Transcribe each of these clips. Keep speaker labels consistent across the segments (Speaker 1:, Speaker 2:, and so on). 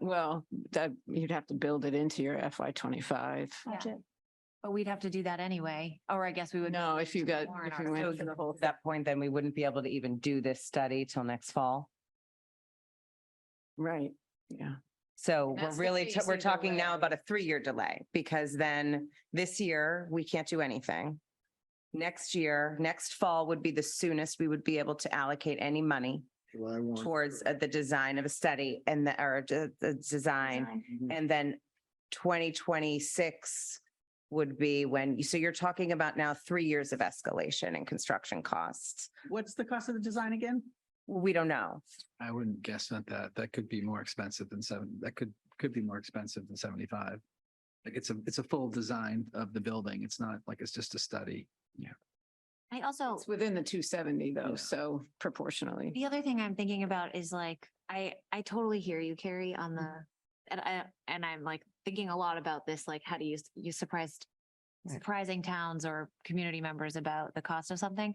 Speaker 1: well, that you'd have to build it into your FY twenty-five.
Speaker 2: Yeah.
Speaker 3: budget.
Speaker 2: But we'd have to do that anyway, or I guess we would.
Speaker 1: No, if you got,
Speaker 2: Warrant
Speaker 1: if you went for
Speaker 2: article.
Speaker 1: the whole
Speaker 4: At that point, then we wouldn't be able to even do this study till next fall.
Speaker 1: right, yeah.
Speaker 2: And
Speaker 4: So we're
Speaker 2: that's the
Speaker 4: really, t- we're
Speaker 2: phasing
Speaker 4: talking now
Speaker 2: delay.
Speaker 4: about a three-year delay because then this year, we can't do anything. Next year, next fall would be the soonest we would be able to allocate any money
Speaker 5: July one.
Speaker 4: towards uh, the design of a study and the, or the, the design.
Speaker 5: Mhm.
Speaker 4: And then twenty twenty-six would be when, you so you're talking about now three years of escalation in construction costs.
Speaker 6: What's the cost of the design again?
Speaker 4: We don't know.
Speaker 7: I wouldn't guess at that. That could be more expensive than seven, that could, could be more expensive than seventy-five. Like it's a, it's a full design of the building. It's not like it's just a study.
Speaker 2: I also,
Speaker 1: It's within the two seventy though,
Speaker 7: Yeah.
Speaker 1: so proportionally.
Speaker 2: the other thing I'm thinking about is like, I, I totally hear you, Carrie, on the,
Speaker 3: Mm-hmm.
Speaker 2: and I, and I'm like thinking a lot about this, like how do you, you surprised,
Speaker 4: Right.
Speaker 2: surprising towns or community members about the cost of something.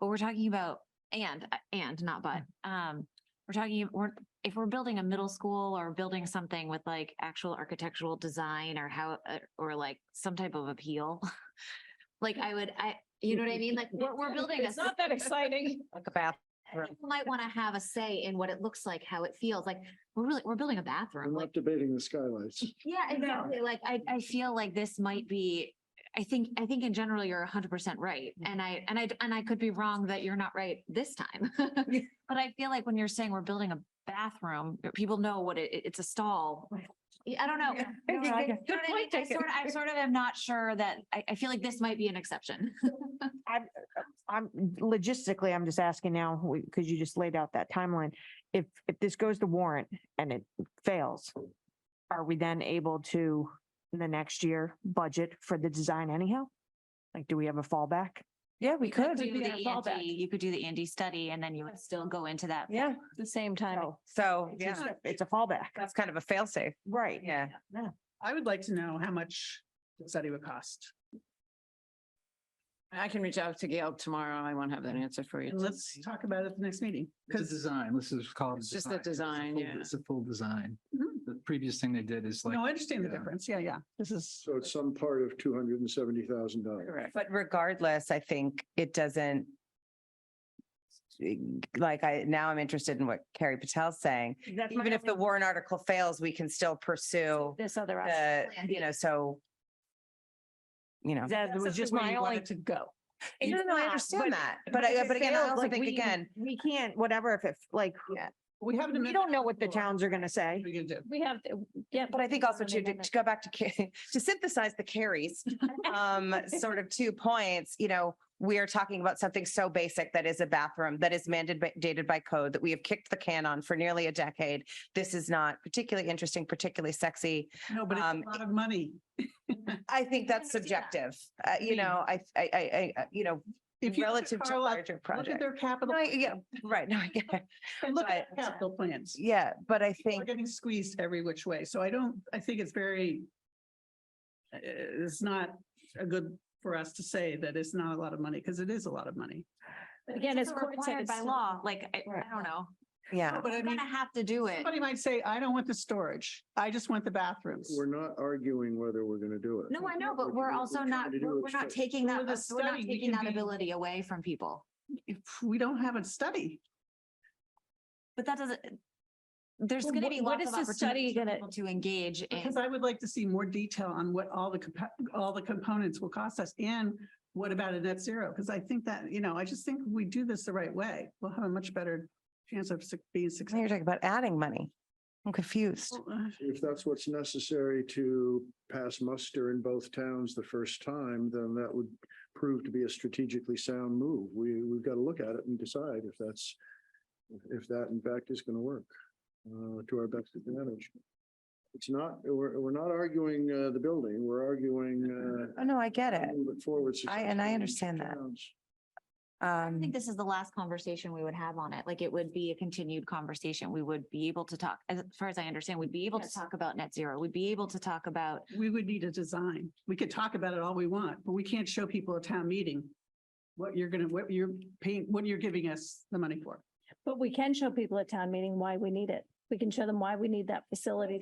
Speaker 2: But we're talking about, and, uh, and not but,
Speaker 3: Mm.
Speaker 2: um, we're talking, we're, if we're building a middle school or building something with like actual architectural design or how, uh, or like some type of appeal. Like I would, I, you know what I mean? Like we're, we're building. a
Speaker 3: It's not that exciting.
Speaker 4: Like a bath. Right.
Speaker 2: people might want to have a say in what it looks like, how it feels like. We're really, we're building a bathroom.
Speaker 5: I'm
Speaker 2: Like,
Speaker 5: not debating the skylights.
Speaker 2: yeah, exactly. Like I, I feel like this might be, I think, I think in general, you're hundred percent right. And I, and I, and I could be wrong that you're not right this time. But I feel like when you're saying we're building a bathroom, people know what it, it's a stall. Yeah, I don't know.
Speaker 3: I
Speaker 2: You know
Speaker 3: think
Speaker 2: what I
Speaker 3: that-
Speaker 2: mean?
Speaker 3: good point
Speaker 2: I
Speaker 3: taken.
Speaker 2: sort of, I sort of am not sure that, I, I feel like this might be an exception.
Speaker 3: I'm logistically, I'm just asking now, because you just laid out that timeline. If, if this goes to warrant and it fails, are we then able to, in the next year, budget for the design anyhow? Like, do we have a fallback?
Speaker 4: Yeah, we
Speaker 2: You could
Speaker 4: could.
Speaker 2: do
Speaker 3: be
Speaker 2: the
Speaker 3: a fallback.
Speaker 2: Andy- You could do the Andy study and then you would still go into that.
Speaker 4: Yeah,
Speaker 3: The same time.
Speaker 4: so, yeah,
Speaker 3: It's a- it's a fallback,
Speaker 4: that's kind of a fail-safe.
Speaker 3: right?
Speaker 4: Yeah.
Speaker 6: I would like to know how much the study would cost.
Speaker 1: I can reach out to Gail tomorrow. I won't have that answer for you.
Speaker 6: And let's talk about it at the next meeting.
Speaker 7: It's a
Speaker 6: Because,
Speaker 7: design. This is called.
Speaker 1: It's just a design,
Speaker 7: full-
Speaker 1: yeah.
Speaker 7: It's a full design.
Speaker 6: Mhm.
Speaker 2: Mm-hmm.
Speaker 7: The previous thing they did is like.
Speaker 6: no, I understand the
Speaker 7: Yeah.
Speaker 6: difference. Yeah, yeah. This is.
Speaker 5: So it's some part of two hundred and seventy thousand dollars.
Speaker 1: Correct.
Speaker 4: But regardless, I think it doesn't. Like I, now I'm interested in what Carrie Patel's saying.
Speaker 3: That's my
Speaker 4: Even if the
Speaker 3: only-
Speaker 4: warrant article fails, we can still pursue
Speaker 3: This other. option.
Speaker 4: the, you know, so. You know.
Speaker 3: That was
Speaker 6: That's
Speaker 3: just
Speaker 6: where
Speaker 3: my
Speaker 6: you want
Speaker 3: only
Speaker 6: it To go.
Speaker 3: It's
Speaker 4: No, no, I
Speaker 3: not,
Speaker 4: understand
Speaker 3: but-
Speaker 4: that, but I,
Speaker 3: if it
Speaker 4: but again, I
Speaker 3: fails,
Speaker 4: also
Speaker 3: like,
Speaker 4: think
Speaker 3: we-
Speaker 4: again,
Speaker 3: We can't, whatever, if it's like,
Speaker 6: We have an
Speaker 3: we
Speaker 6: amendment.
Speaker 3: don't know what the
Speaker 6: Well, what
Speaker 3: towns are gonna
Speaker 6: are
Speaker 3: say.
Speaker 6: we gonna do?
Speaker 3: We have, yeah.
Speaker 4: but I think also
Speaker 3: an
Speaker 4: to, to
Speaker 3: amendment.
Speaker 4: go back to, Ca- to synthesize the carries, um, sort of two points, you know, we are talking about something so basic that is a bathroom that is mandated by code that we have kicked the can on for nearly a decade. This is not particularly interesting, particularly sexy.
Speaker 6: No, but it's
Speaker 4: Um,
Speaker 6: a lot of money.
Speaker 4: I think that's
Speaker 2: I see that.
Speaker 4: subjective. Uh, you know, I, I, I, I, you know,
Speaker 6: If you look
Speaker 4: relative
Speaker 6: at
Speaker 4: to
Speaker 6: Carlisle,
Speaker 4: larger
Speaker 6: look at
Speaker 4: projects.
Speaker 6: their capital.
Speaker 4: No, I- yeah, right. No, I get it.
Speaker 6: and Look at
Speaker 4: but-
Speaker 6: their capital plans.
Speaker 4: Yeah, but I
Speaker 6: We're
Speaker 4: think,
Speaker 6: getting squeezed every which way. So I don't, I think it's very, uh, it's not a good for us to say that it's not a lot of money because it is a lot of money.
Speaker 3: Again,
Speaker 2: It's
Speaker 3: as Court said,
Speaker 2: required by
Speaker 3: it's-
Speaker 2: law, like, I,
Speaker 3: Right.
Speaker 2: I don't know.
Speaker 4: yeah.
Speaker 6: But I
Speaker 2: We're
Speaker 6: mean,
Speaker 2: gonna have to do it.
Speaker 6: somebody might say, I don't want the storage. I just want the bathrooms.
Speaker 5: We're not arguing whether we're going to do it.
Speaker 2: No, I know, but
Speaker 5: What
Speaker 2: we're
Speaker 5: we're
Speaker 2: also
Speaker 5: trying
Speaker 2: not,
Speaker 5: to do
Speaker 2: we're we're
Speaker 5: is
Speaker 2: not
Speaker 5: to-
Speaker 2: taking
Speaker 6: Well,
Speaker 2: that,
Speaker 6: the
Speaker 2: we're not
Speaker 6: study, we
Speaker 2: taking
Speaker 6: can
Speaker 2: that
Speaker 6: be-
Speaker 2: ability away from people.
Speaker 6: If we don't have a study,
Speaker 2: But that doesn't, there's
Speaker 3: Well,
Speaker 2: gonna
Speaker 3: what-
Speaker 2: be
Speaker 3: what
Speaker 2: lots
Speaker 3: is
Speaker 2: of
Speaker 3: the
Speaker 2: opportunities
Speaker 3: study
Speaker 2: for
Speaker 3: gonna-
Speaker 2: people to engage in.
Speaker 6: because I would like to see more detail on what all the, compa- all the components will cost us and what about a net zero? Because I think that, you know, I just think if we do this the right way, we'll have a much better chance of suc-
Speaker 4: Now
Speaker 6: being
Speaker 4: you're
Speaker 6: successful.
Speaker 4: talking about adding money. I'm confused.
Speaker 5: If that's what's necessary to pass muster in both towns the first time, then that would prove to be a strategically sound move. We, we've got to look at it and decide if that's, if that in fact is going to work uh, to our best advantage. It's not, we're, we're not arguing uh, the building, we're arguing.
Speaker 4: Oh, no, I get
Speaker 5: uh,
Speaker 4: it.
Speaker 5: moving Forward.
Speaker 4: I- and I
Speaker 5: successfully in
Speaker 4: understand that.
Speaker 5: towns.
Speaker 2: I
Speaker 4: Um,
Speaker 2: think this is the last conversation we would have on it. Like it would be a continued conversation. We would be able to talk, as far as I understand, we'd be able to
Speaker 3: Yes.
Speaker 2: talk about net zero. We'd be able to talk about,
Speaker 6: we would need a design. We could talk about it all we want, but we can't show people a town meeting what you're gonna, what you're paying, what you're giving us the money for.
Speaker 8: But we can show people at town meeting why we need it.
Speaker 3: we can show them why we need that facility